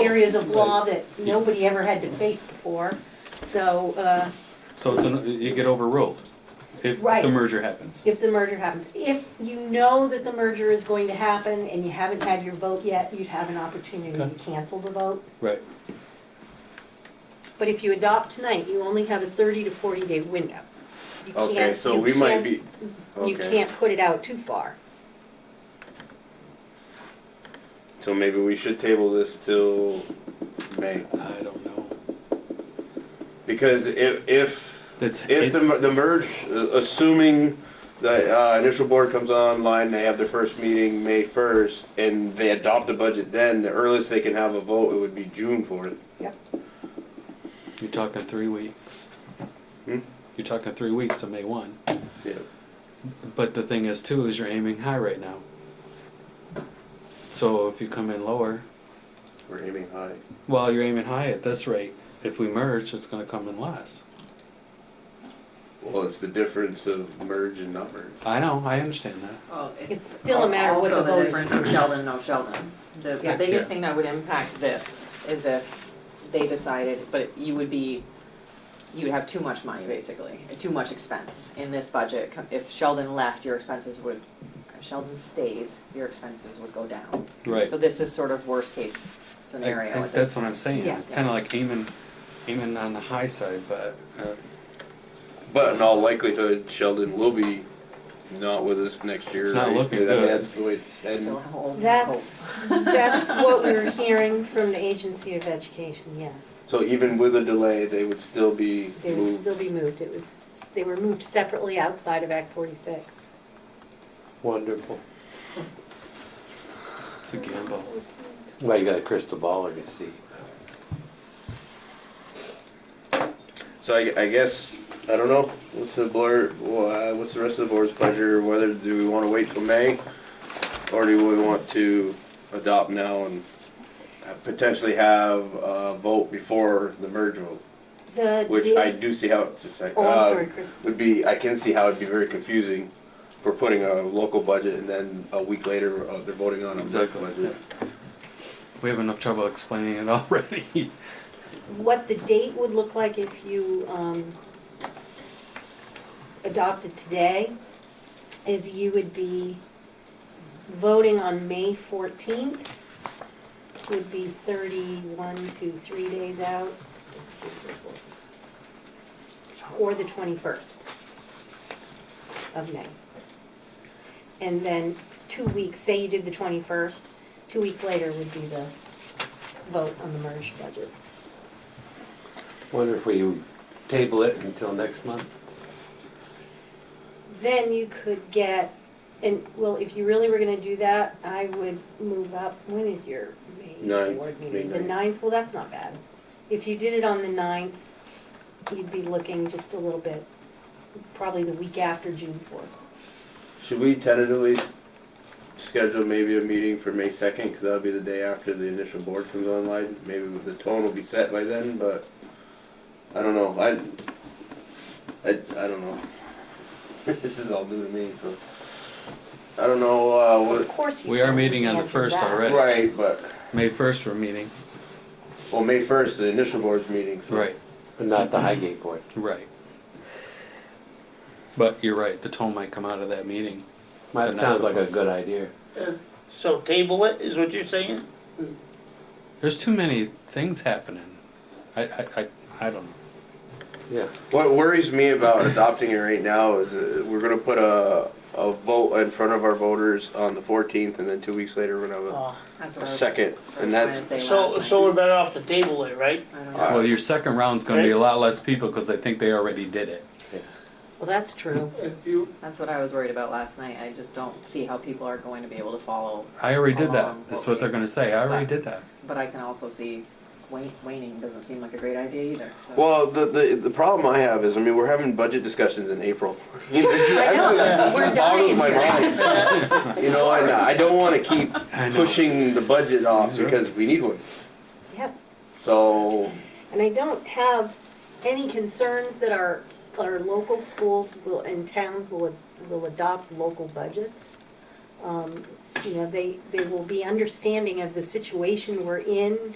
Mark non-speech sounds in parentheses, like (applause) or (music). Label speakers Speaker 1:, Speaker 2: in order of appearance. Speaker 1: areas of law that nobody ever had to face before, so, uh,
Speaker 2: So it's, an- you get overruled if
Speaker 1: Right.
Speaker 2: the merger happens.
Speaker 1: if the merger happens. If you know that the merger is going to happen and you haven't had your vote yet, you'd have an opportunity to
Speaker 2: Okay.
Speaker 1: cancel the vote.
Speaker 2: Right.
Speaker 1: But if you adopt tonight, you only have a thirty to forty day window. You
Speaker 3: Okay,
Speaker 1: can't-
Speaker 3: so
Speaker 1: you
Speaker 3: we might
Speaker 1: can't-
Speaker 3: be,
Speaker 1: You
Speaker 3: okay,
Speaker 1: can't put it out too far.
Speaker 3: so maybe we should table this till May,
Speaker 2: I don't know.
Speaker 3: because if, if,
Speaker 2: That's,
Speaker 3: if the,
Speaker 2: it's-
Speaker 3: the merge, uh, assuming the, uh, initial board comes online, they have their first meeting May first, and they adopt the budget then, the earliest they can have a vote, it would be June fourth.
Speaker 2: you're talking three weeks.
Speaker 3: Hmm?
Speaker 2: You're talking three weeks to May one.
Speaker 3: Yeah.
Speaker 2: But the thing is too, is you're aiming high right now. So if you come in lower,
Speaker 3: We're aiming high.
Speaker 2: well, you're aiming high at this rate. If we merge, it's gonna come in less.
Speaker 3: Well, it's the difference of merge and not merge.
Speaker 2: I know, I understand that.
Speaker 4: Well,
Speaker 1: It's still a matter of what the
Speaker 4: Oh, Also,
Speaker 1: voters
Speaker 4: the difference of Sheldon, no Sheldon. The
Speaker 1: Yeah.
Speaker 4: the biggest
Speaker 2: Yeah.
Speaker 4: thing that would impact this is if they decided, but you would be, you would have too much money, basically, too much expense in this budget. Com- If Sheldon left, your expenses would, if Sheldon stays, your expenses would go down.
Speaker 2: Right.
Speaker 4: So this is sort of worst-case
Speaker 2: I-
Speaker 4: scenario
Speaker 2: I-
Speaker 4: at this
Speaker 2: That's
Speaker 4: point.
Speaker 2: what I'm saying.
Speaker 1: Yeah.
Speaker 2: It's kinda like aiming, aiming on the high side, but, uh,
Speaker 3: But in all likelihood, Sheldon will be not with us next year.
Speaker 2: It's not
Speaker 3: right?
Speaker 2: looking
Speaker 3: I mean,
Speaker 2: good.
Speaker 3: That's the way it's,
Speaker 4: Still
Speaker 3: and
Speaker 4: hold hope.
Speaker 1: That's, that's what we're hearing from the Agency of Education, yes.
Speaker 3: so even with a delay, they would still be
Speaker 1: They would
Speaker 3: moved.
Speaker 1: still be moved. It was, they were moved separately outside of Act 46.
Speaker 5: Wonderful.
Speaker 2: it's a gamble.
Speaker 5: Well, you got a crystal ball to see.
Speaker 3: So I, I guess, I don't know, what's the blur, wha- what's the rest of the board's pleasure, whether, do we wanna wait till May? Or do we want to adopt now and potentially have a vote before the merge vote?
Speaker 1: The,
Speaker 3: Which I do see how, just like,
Speaker 1: Oh, I'm
Speaker 3: uh,
Speaker 1: sorry, Chris.
Speaker 3: would be, I can see how it'd be very confusing for putting a local budget and then a week later, uh, they're voting on a
Speaker 2: Exactly.
Speaker 3: local budget.
Speaker 2: We have enough trouble explaining it (laughs) already.
Speaker 1: what the date would look like if you um, adopted today is you would be voting on May 14th, would be 31 to 3 days out, or the 21st of May. And then two weeks, say you did the 21st, two weeks later would be the vote on the merged budget.
Speaker 5: Wonder if we table it until next month?
Speaker 1: then you could get, and, well, if you really were gonna do that, I would move up, when is your May
Speaker 3: Ninth,
Speaker 1: board
Speaker 3: May
Speaker 1: meeting? The
Speaker 3: ninth.
Speaker 1: ninth, well, that's not bad. If you did it on the ninth, you'd be looking just a little bit, probably the week after June fourth.
Speaker 3: Should we tentatively schedule maybe a meeting for May second, because that'll be the day after the initial board comes online? Maybe the tone will be set by then, but I don't know, I, I, I don't know. (laughs) This is all new to me, so, I don't know, uh,
Speaker 1: Of
Speaker 3: what,
Speaker 1: course you
Speaker 2: We are
Speaker 1: can't
Speaker 2: meeting on the
Speaker 1: answer
Speaker 2: 1st
Speaker 1: that.
Speaker 2: already.
Speaker 3: right, but,
Speaker 2: May first, we're meeting.
Speaker 3: well, May first, the initial board's meeting, so.
Speaker 5: But not (laughs) the Highgate Board.
Speaker 2: Right. But you're right, the tone might come out of that meeting.
Speaker 5: Might sound like a good idea.
Speaker 6: So table it, is what you're saying?
Speaker 2: There's too many things happening. I, I, I, I don't know.
Speaker 5: Yeah.
Speaker 3: What worries me about adopting it right now is uh, we're gonna put a, a vote in front of our voters on the fourtens, and then two weeks later, we're gonna have
Speaker 6: Oh,
Speaker 4: That's
Speaker 3: a-
Speaker 4: what I
Speaker 3: a
Speaker 4: was-
Speaker 3: second,
Speaker 4: that's what I
Speaker 3: and
Speaker 4: was
Speaker 3: that's,
Speaker 4: trying to say
Speaker 6: So,
Speaker 4: last
Speaker 6: so we're
Speaker 4: night.
Speaker 6: better off to table it, right?
Speaker 4: I don't know.
Speaker 3: Alright.
Speaker 2: Well, your second round's gonna be a lot less people because I think they already did it.
Speaker 1: Well, that's true.
Speaker 4: That's what I was worried about last night. I just don't see how people are going to be able to follow
Speaker 2: I already did that.
Speaker 4: Um,
Speaker 2: That's what they're gonna say. I already did that.
Speaker 4: But I can also see wan- waning doesn't seem like a great idea either. so-
Speaker 3: Well, the, the, the problem I have is, I mean, we're having budget discussions in April. (laughs) I
Speaker 1: know, we're dying
Speaker 3: boggles my mind. You know, and I don't wanna keep
Speaker 2: I know.
Speaker 3: pushing the budget off
Speaker 2: Sure.
Speaker 3: because we need one.
Speaker 1: Yes,
Speaker 3: So,
Speaker 1: and I don't have any concerns that our, our local schools will, and towns will, will adopt local budgets. Um, You know, they, they will be understanding of the situation we're in